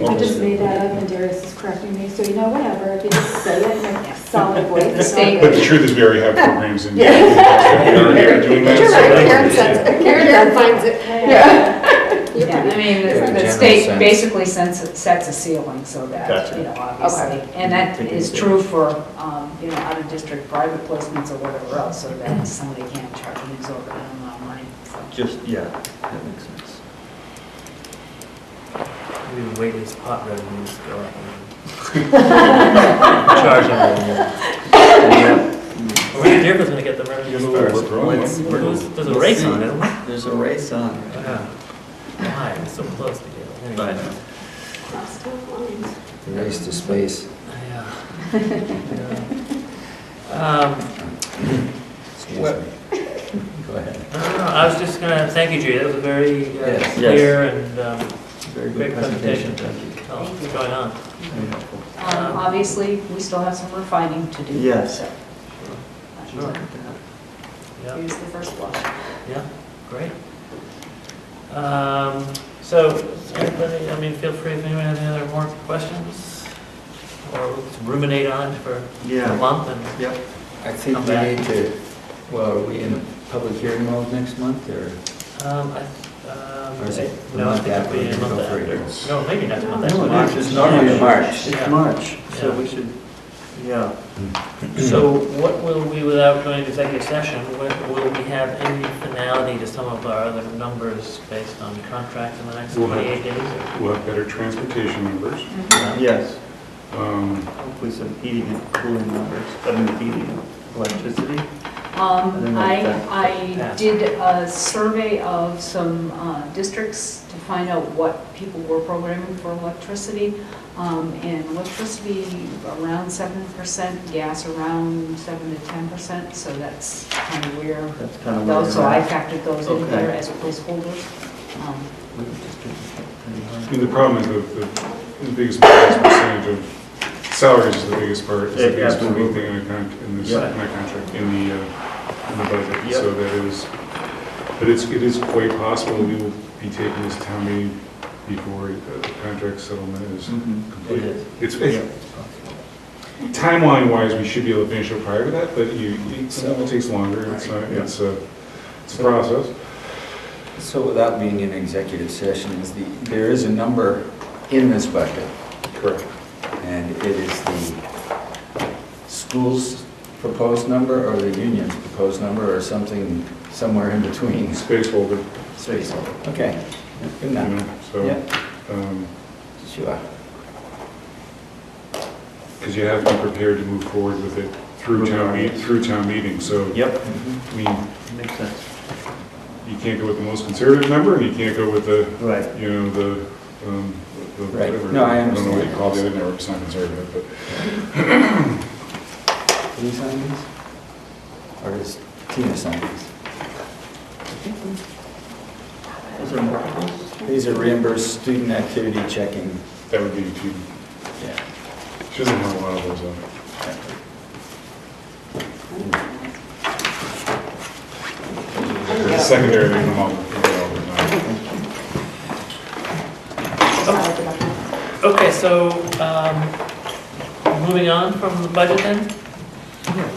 I just made that up and Darius is correcting me, so you know, whatever, if you just say it in a solid way. it's not But the good. truth is, we already have programs in. Yeah. We already are doing that, You're so- right, Karen says, Karen finds it. Yeah. Yeah, I mean, In a the- the general state sense. basically sets, a- sets a ceiling so that, Gotcha. you know, obviously. And that is true for, um, you know, out-of-district private placements or whatever else, so that somebody can't charge an exorbitant amount of money. so. Just, yeah, that makes sense. We've been waiting these pot revenues to go up. Charge them. We're here gonna get the revenues We're first. growing. Let's- We're- There's there's a let's race see. on it. Wow. There's a race on. right now. Why? We're so close to getting it. But Anyway. The Race to space. Yeah. Yeah. Um, Excuse me. Well- Go ahead. No, no, no, I was just gonna, thank you, Judy, that was a very uh, Yes. Yes. clear and um, very great good presentation. presentation. Thank Thank you. you. Tell us what's going on. Very helpful. Um, Obviously, we still have some refining to do. Yes. so. Sure. Yeah, Here's the first blush. yeah, great. Um, So, anybody, I mean, feel free if anyone has any other more questions, or we'll just ruminate on it for a Yeah, month and yep. I think Come we back. need to, well, are we in a public hearing mode next month, or? Um, I- um, Or is it the No, I month think it'll after be in a we month go for after. it? No, maybe next month. that's No, March. it's just normally in March. Yeah. It's March, Yeah. so we should, yeah. Hmm. So what will we, without going to executive session, what will we have any finality to some of our other numbers based on contracts in the next We'll have- 28 days? or- We'll have better transportation numbers. Mm-hmm. Yes, Um, hopefully some heating and cooling numbers, I mean, heating and electricity. Um, I, Yeah. I did a survey of some uh, districts to find out what people were programming for electricity. Um, And electricity around 7%, gas around 7 to 10%, so that's kind of where That's kind of where. those, so I factored those in Okay. there as placeholders. Um, I Mm-hmm. mean, the problem is the, the- the biggest part is percentage of salaries is the biggest part. It's the Yeah, biggest moving absolutely. thing in the contract, in this, Yeah. in my contract, in the, uh, in the budget. Yeah. So that is, but it's, it is quite possible we will be taking this town meeting before the contract settlement is Mm. It complete. is. It's, Yeah. it's, timeline wise, we should be able to finish it prior to that, but you, it sometimes takes longer. It's, not- it's a, it's a process. So without being in executive session, is the, there is a number in this budget, Correct. and it is the school's proposed number or the union's proposed number or something somewhere in between. Space holder, you Space. Okay, good enough. know, so, um, Yeah, sure. because you have to be prepared to move forward with it through town, meet- through town meeting, so, Yep, I mean, makes sense. you can't go with the most conservative number, and you can't go with the, Right. you know, the, um, the Right. whatever. No, I don't know what understand. you call the other number, it's not conservative, but Can you sign these? Or is Tina sign these? Is there multiples? These are reimbursed student activity checking. that would be, too- Yeah. she doesn't have a lot of those uh, on it. The Secondary, they come up with it all the time. Okay, so um, moving on from the budget then?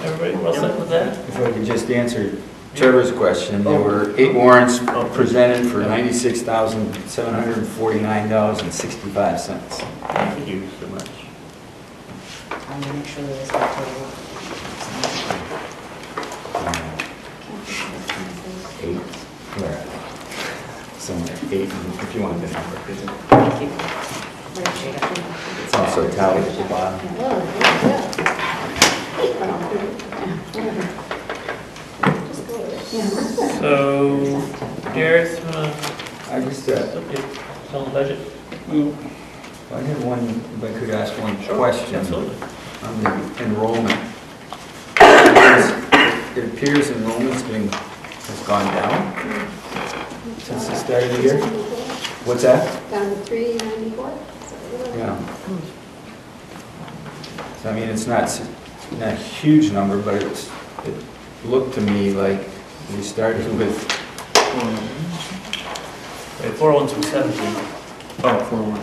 Everybody well set with that? If I could just answer Trevor's question, there were eight warrants presented for ninety-six thousand, seven hundred and forty-nine dollars and sixty-five cents. Thank you so much. I'm gonna make sure that it's not total. Eight, where are they? Somewhere, eight, if you want the number. Thank you. Appreciate it. It's also tallied at the bottom. So, Darius, you wanna I just, uh, update on the budget? I had one, if I could ask one Sure, question. Absolutely. on the enrollment. It appears enrollment's been, has gone down since the start of the year. What's that? Down to three ninety-four? Yeah. So I mean, it's not, s- not a huge number, but it's, it looked to me like we started with Wait, 41217. Oh, four one